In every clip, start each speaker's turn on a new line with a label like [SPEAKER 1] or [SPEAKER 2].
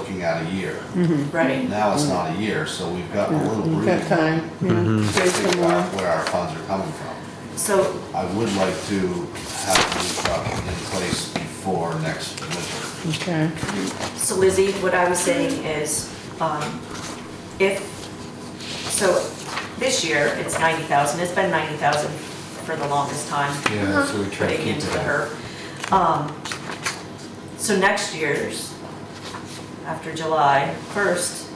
[SPEAKER 1] looking at a year.
[SPEAKER 2] Right.
[SPEAKER 1] Now it's not a year, so we've got a little
[SPEAKER 3] You've
[SPEAKER 1] breathing
[SPEAKER 3] Mm-hmm. got time,
[SPEAKER 1] room
[SPEAKER 3] yeah,
[SPEAKER 1] to
[SPEAKER 3] save some
[SPEAKER 1] figure out
[SPEAKER 3] more.
[SPEAKER 1] where our funds are coming from.
[SPEAKER 2] So,
[SPEAKER 1] I would like to have the new truck in place before next winter.
[SPEAKER 3] okay.
[SPEAKER 2] so Lizzie, what I was saying is, um, if, so this year, it's ninety thousand, it's been ninety thousand for the longest time.
[SPEAKER 3] Uh-huh.
[SPEAKER 4] Yeah, so we try to
[SPEAKER 2] putting
[SPEAKER 4] keep
[SPEAKER 2] into
[SPEAKER 4] it
[SPEAKER 2] the
[SPEAKER 4] at.
[SPEAKER 2] HERP. Um, so next year's, after July first,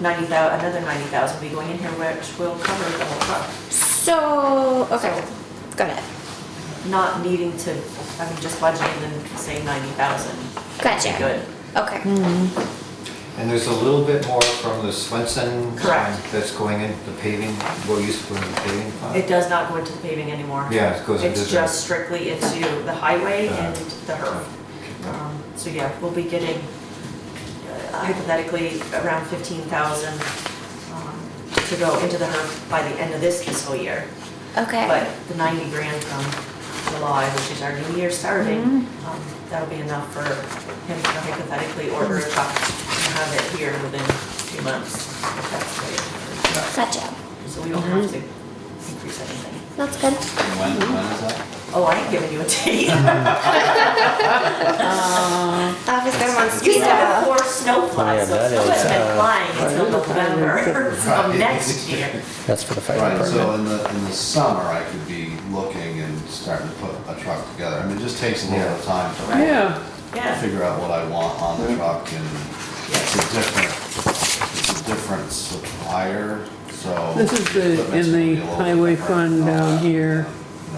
[SPEAKER 2] ninety thou, another ninety thousand will be going in here, which will cover the whole truck.
[SPEAKER 5] So, okay, got it.
[SPEAKER 2] Not needing to, I mean, just budgeting and saying ninety thousand.
[SPEAKER 5] Gotcha.
[SPEAKER 2] Good.
[SPEAKER 5] Okay.
[SPEAKER 4] And there's a little bit more from the Swenson.
[SPEAKER 2] Correct.
[SPEAKER 4] sign That's going in, the paving, what used to go in the paving
[SPEAKER 2] It
[SPEAKER 4] fund.
[SPEAKER 2] does not go into the paving anymore.
[SPEAKER 4] Yeah, it goes into
[SPEAKER 2] It's
[SPEAKER 4] the-
[SPEAKER 2] just strictly into the highway
[SPEAKER 4] Uh,
[SPEAKER 2] and the HERF. Um, So yeah, we'll be getting uh, hypothetically around fifteen thousand um, to go into the HERF by the end of this fiscal year.
[SPEAKER 5] Okay.
[SPEAKER 2] But the ninety grand from July, which is our new year starting, um, that'll be enough for him to hypothetically order a truck and have it here within two months. if that's the way it
[SPEAKER 5] Gotcha.
[SPEAKER 2] works. So we don't have to increase anything.
[SPEAKER 5] That's good.
[SPEAKER 1] And when, when is that?
[SPEAKER 2] Oh, I ain't giving you a date.
[SPEAKER 5] Obviously, I want
[SPEAKER 2] You said
[SPEAKER 5] pizza.
[SPEAKER 2] before snowplow,
[SPEAKER 6] Yeah,
[SPEAKER 2] so
[SPEAKER 6] that
[SPEAKER 2] it's always
[SPEAKER 6] is,
[SPEAKER 2] been
[SPEAKER 6] uh,
[SPEAKER 2] flying until November of
[SPEAKER 1] Right.
[SPEAKER 2] next year.
[SPEAKER 6] That's for the fire
[SPEAKER 1] Right, so
[SPEAKER 6] department.
[SPEAKER 1] in the, in the summer, I could be looking and starting to put a truck together. I mean, it just takes a little bit of time to
[SPEAKER 3] Yeah,
[SPEAKER 2] Yeah,
[SPEAKER 1] figure out what I want on the truck and it's a different, it's a different supplier, so.
[SPEAKER 3] This is the-
[SPEAKER 1] equipment's
[SPEAKER 3] in the
[SPEAKER 1] gonna be a little bit
[SPEAKER 3] highway
[SPEAKER 1] different Uh,
[SPEAKER 3] fund uh,
[SPEAKER 1] on
[SPEAKER 3] down
[SPEAKER 1] that,
[SPEAKER 3] here.
[SPEAKER 1] you know.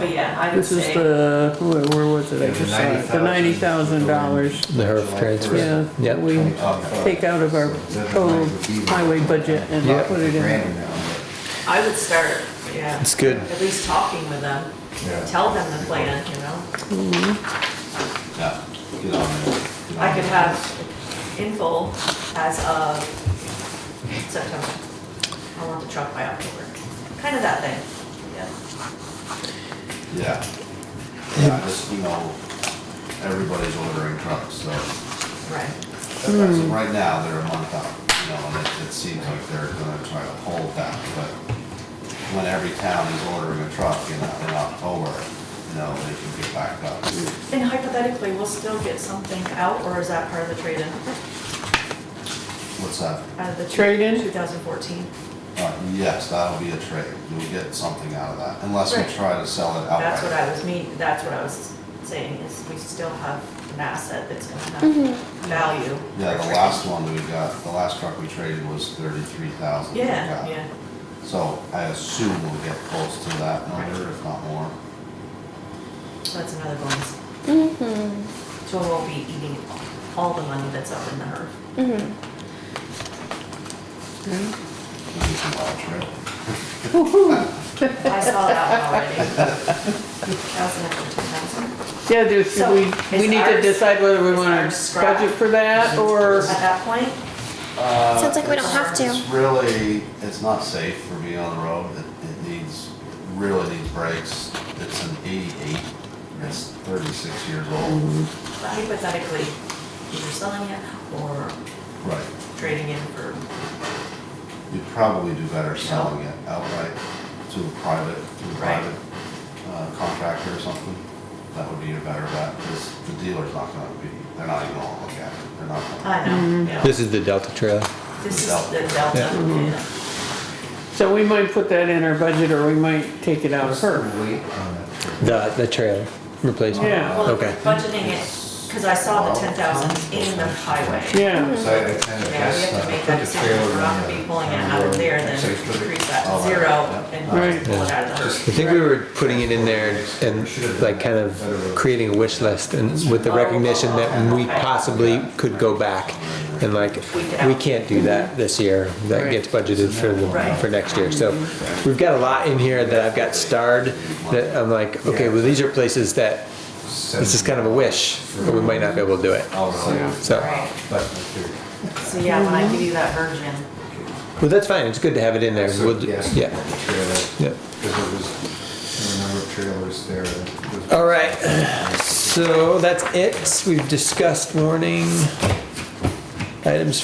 [SPEAKER 2] but yeah, I would
[SPEAKER 3] this is
[SPEAKER 2] say,
[SPEAKER 3] the, where where was it? I
[SPEAKER 4] Yeah, the
[SPEAKER 3] just saw it. The ninety thousand dollars,
[SPEAKER 6] The HERF transfer.
[SPEAKER 3] yeah, that we
[SPEAKER 1] Yep.
[SPEAKER 3] take out of our total highway budget and
[SPEAKER 6] Yeah.
[SPEAKER 3] put it in.
[SPEAKER 4] Grand now,
[SPEAKER 2] I would start, yeah,
[SPEAKER 6] It's good.
[SPEAKER 2] at least talking with them.
[SPEAKER 4] Yeah.
[SPEAKER 2] Tell them the plan, you know?
[SPEAKER 1] Yeah, get on there. get
[SPEAKER 2] I
[SPEAKER 1] on
[SPEAKER 2] could
[SPEAKER 1] there.
[SPEAKER 2] have info as of September. I want the truck by October. Kind of that thing, yeah.
[SPEAKER 1] Yeah. Yeah, just, you know, everybody's ordering trucks, so
[SPEAKER 2] Right.
[SPEAKER 1] as of right now, they're a month out, you know, and it, it seems like they're gonna try to hold that, but when every town is ordering a truck in, in October, you know, they can get backed up.
[SPEAKER 2] And hypothetically, we'll still get something out, or is that part of the trade-in?
[SPEAKER 1] What's that?
[SPEAKER 2] Out of the
[SPEAKER 3] Trade-in?
[SPEAKER 2] 2014.
[SPEAKER 1] Uh, yes, that'll be a trade. You'll get something out of that, unless we
[SPEAKER 2] Right.
[SPEAKER 1] try to sell it
[SPEAKER 2] That's what
[SPEAKER 1] outright.
[SPEAKER 2] I was mean, that's what I was saying, is we still have an asset that's gonna have value.
[SPEAKER 1] Yeah, the last one that we got, the last truck we traded was thirty-three thousand.
[SPEAKER 2] Yeah, yeah,
[SPEAKER 1] So I assume we'll get close to that number, if not more.
[SPEAKER 2] so that's another bonus.
[SPEAKER 5] Mm-hmm.
[SPEAKER 2] So we won't be eating all the money that's up in the herd.
[SPEAKER 5] Mm-hmm.
[SPEAKER 1] We can buy a trailer.
[SPEAKER 2] I saw that one already. Thousand after two thousand.
[SPEAKER 3] Yeah, just,
[SPEAKER 2] So,
[SPEAKER 3] we, we
[SPEAKER 2] is
[SPEAKER 3] need to
[SPEAKER 2] ours-
[SPEAKER 3] decide whether we
[SPEAKER 2] is
[SPEAKER 3] wanna
[SPEAKER 2] ours scrap?
[SPEAKER 3] budget for that or,
[SPEAKER 2] At that point,
[SPEAKER 1] Uh,
[SPEAKER 5] Sounds like we don't
[SPEAKER 1] it's-
[SPEAKER 5] have to.
[SPEAKER 1] It's really, it's not safe for me on the road. It, it needs, really needs brakes. It's an eighty-eight. It's thirty-six years old.
[SPEAKER 2] hypothetically, either selling it or
[SPEAKER 1] Right.
[SPEAKER 2] trading in for,
[SPEAKER 1] You'd probably do better selling it outright to a private, to a
[SPEAKER 2] Right.
[SPEAKER 1] private uh, contractor or something. That would be a better bet, because the dealer's not gonna be, they're not even gonna look at it. They're not gonna.
[SPEAKER 2] I know, yeah.
[SPEAKER 6] This is the Delta trailer.
[SPEAKER 2] This is the delta, yeah.
[SPEAKER 3] so we might put that in our budget or we might take it out of her.
[SPEAKER 4] Wait on it.
[SPEAKER 6] The, the trailer replacement.
[SPEAKER 3] Yeah.
[SPEAKER 2] Well,
[SPEAKER 6] Okay.
[SPEAKER 2] budgeting it, because I saw the ten thousand in the highway.
[SPEAKER 3] Yeah.
[SPEAKER 4] So I I kind
[SPEAKER 2] Yeah, we
[SPEAKER 4] of guess.
[SPEAKER 2] have to
[SPEAKER 4] uh,
[SPEAKER 2] make
[SPEAKER 4] put
[SPEAKER 2] that
[SPEAKER 4] the
[SPEAKER 2] decision,
[SPEAKER 4] trailer
[SPEAKER 2] we're not
[SPEAKER 4] in
[SPEAKER 2] gonna be
[SPEAKER 4] the-
[SPEAKER 2] pulling it
[SPEAKER 4] on the
[SPEAKER 2] out of
[SPEAKER 4] road.
[SPEAKER 2] there and
[SPEAKER 4] Actually,
[SPEAKER 2] then
[SPEAKER 4] put it-
[SPEAKER 2] decrease that
[SPEAKER 1] Oh,
[SPEAKER 2] uh,
[SPEAKER 1] right,
[SPEAKER 2] to zero
[SPEAKER 1] yeah.
[SPEAKER 3] Right.
[SPEAKER 2] and pull it out of the
[SPEAKER 6] I
[SPEAKER 2] herd.
[SPEAKER 6] think we were putting it in there and like kind of creating a wish list and with the recognition that we possibly could go back. And like, we can't do that this year. That gets budgeted for the, for next year. So we've got a lot in here that I've got starred that I'm like, okay, well, these are places that this is kind of a wish, but we might not be able to do it.
[SPEAKER 1] Oh, really?
[SPEAKER 6] So,
[SPEAKER 2] Right.
[SPEAKER 4] But if you're-
[SPEAKER 2] So yeah, when I give you that version,
[SPEAKER 6] well, that's fine. It's good to have it in there.
[SPEAKER 4] so
[SPEAKER 6] We'll,
[SPEAKER 4] yes,
[SPEAKER 6] yeah.
[SPEAKER 4] the trailer,
[SPEAKER 6] Yeah.
[SPEAKER 4] Because there was, there were a number of trailers there. that was-
[SPEAKER 6] All right, so that's it. We've discussed warning. Items